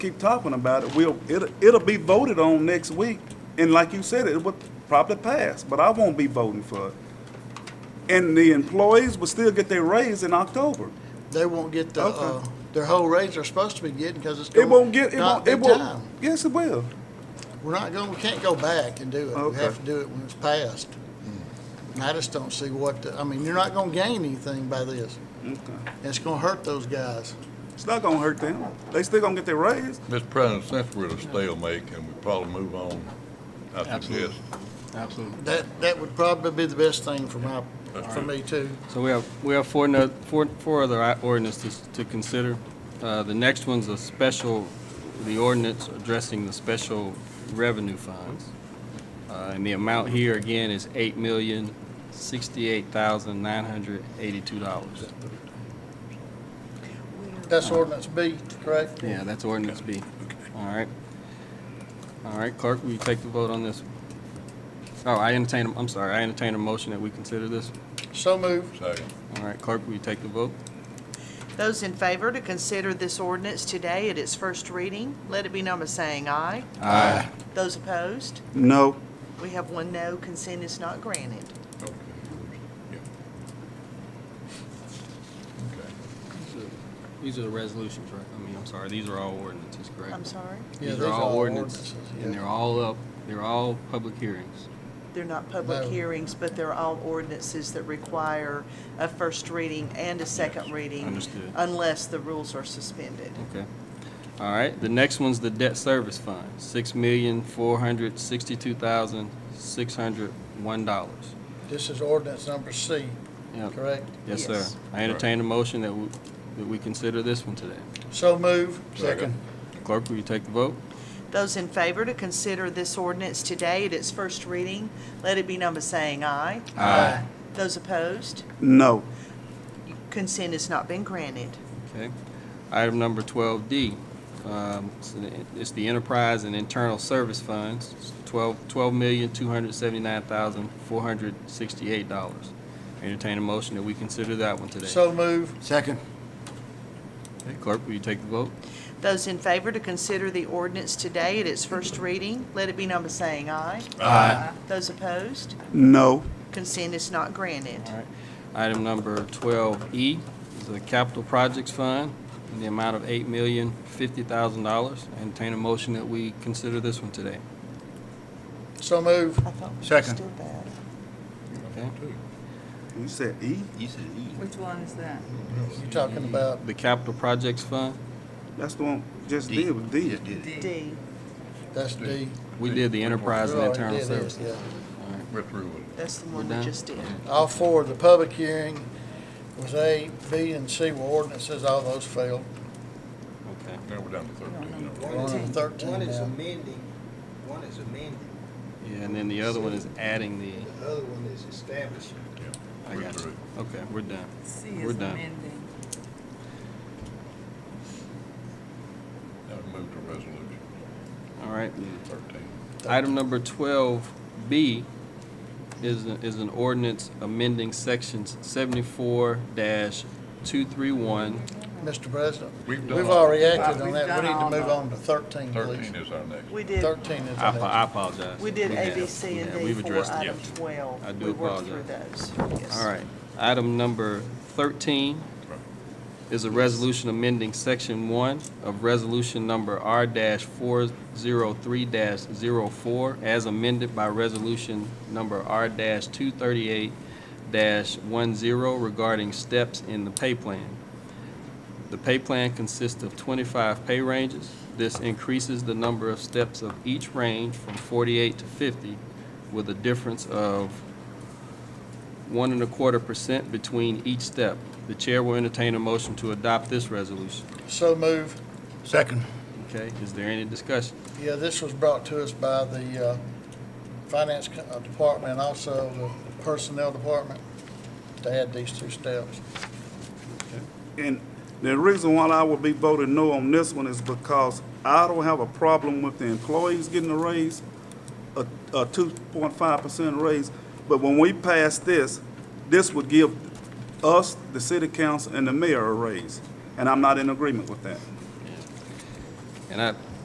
keep talking about it, we'll, it'll, it'll be voted on next week. And like you said, it would probably pass, but I won't be voting for it. And the employees will still get their raise in October. They won't get the, uh, Okay. their whole raise they're supposed to be getting because it's It going won't to get, it not won't, be it won't. time. Yes, it will. We're not going, we can't go back and do it. We Okay. have to do it when it's passed. And I just don't see what, the- I mean, you're not going to gain anything by this. Okay. And It's going to hurt those guys. It's not gonna hurt them. They still gonna get their raise. Mr. President, since we're at a stalemate, can we probably move on? I suggest. Absolutely. Absolutely. That, that would probably be the best thing for my, for me too. So we have, we have four, no- four, four other i- ordinances to consider. Uh, The next one's a special, the ordinance addressing the special revenue funds. Uh, And the amount here again is eight million, sixty-eight thousand, nine hundred eighty-two dollars. That's ordinance B, correct? Yeah, that's ordinance B. All right. All right, clerk, will you take the vote on this? Oh, I entertain, a- I'm sorry, I entertain a motion that we consider this. So moved. Second. All right, clerk, will you take the vote? Those in favor to consider this ordinance today at its first reading, let it be known by saying aye. Aye. Those opposed, No. we have one no, consent is not granted. Okay. Yeah. Okay. These are the resolutions, right? I mean, I'm sorry, these are all ordinances, correct? I'm sorry, Yeah, These are all ordinances, ordinances, and yeah. they're all up, they're all public hearings. they're not public No. hearings, but they're all ordinances that require a first reading and a second reading. understood. Unless the rules are suspended. Okay. All right, the next one's the debt service fund, six million, four hundred, sixty-two thousand, six hundred, one dollars. This is ordinance number C, Yep, correct? yes, sir. Yes. I entertain a motion that we, that we consider this one today. So moved. Second. Clerk, will you take the vote? Those in favor to consider this ordinance today at its first reading, let it be known by saying aye. Aye. Those opposed, No. consent has not been granted. Okay. Item number twelve D, um, it's the- it's the Enterprise and Internal Service Funds, It's twelve, twelve million, two hundred seventy-nine thousand, four hundred sixty-eight dollars. Entertain a motion that we consider that one today. So moved. Second. Okay, Clerk, will you take the vote? Those in favor to consider the ordinance today at its first reading, let it be known by saying aye. Aye. Those opposed, No. consent is not granted. All right. Item number twelve E is the Capital Projects Fund in the amount of eight million, fifty thousand dollars. Entertain a motion that we consider this one today. So moved. I thought we Second. understood that. Okay? You said E? You said E. Which one is that? You're talking about The Capital Projects Fund, That's the one just D. did with D. Just did E. it. D, That's D. we did the Enterprise and Right, Internal Oh, it is, Service. yeah. We're through with that's the We're one we done? just did. All four, the public hearing was A, B, and C were ordinances, all those failed. Okay. it. Now we're down to thirteen. aren't we? We're on to thirteen One is now. amending, one is amending, Yeah, and then the other one is adding the, the other one is establishing. I We're got you. through. Okay, we're done. C We're is done. amending. Now we move to resolution All right. thirteen. Item number twelve B is, is an ordinance amending sections seventy-four two-three-one. Mr. President, We've done we've all- already acted on We've that. done We need to all move of on to thirteen, please. Thirteen is our next. We did, Thirteen is I the apo- I next. apologize. we did A, have- B, C, and yeah, D we've for addressed it. item 12. I do We worked through those, yes. All right. Item number thirteen is a resolution amending section one of resolution number R four zero three 4 as amended by resolution number R two thirty-eight one zero regarding steps in the pay plan. The pay plan consists of twenty-five pay ranges. This increases the number of steps of each range from forty-eight to fifty with a difference of one and a quarter percent between each step. The chair will entertain a motion to adopt this resolution. So move. Second. Okay, is there any discussion? Yeah, this was brought to us by the uh, Finance Co- uh, Department and also the Personnel Department to add these two steps. And the reason why I would be voting no on this one is because I don't have a problem with the employees getting a raise, a, a two point five percent raise. But when we pass this, this would give us, the city council, and the mayor a raise. And I'm not in agreement with that. And I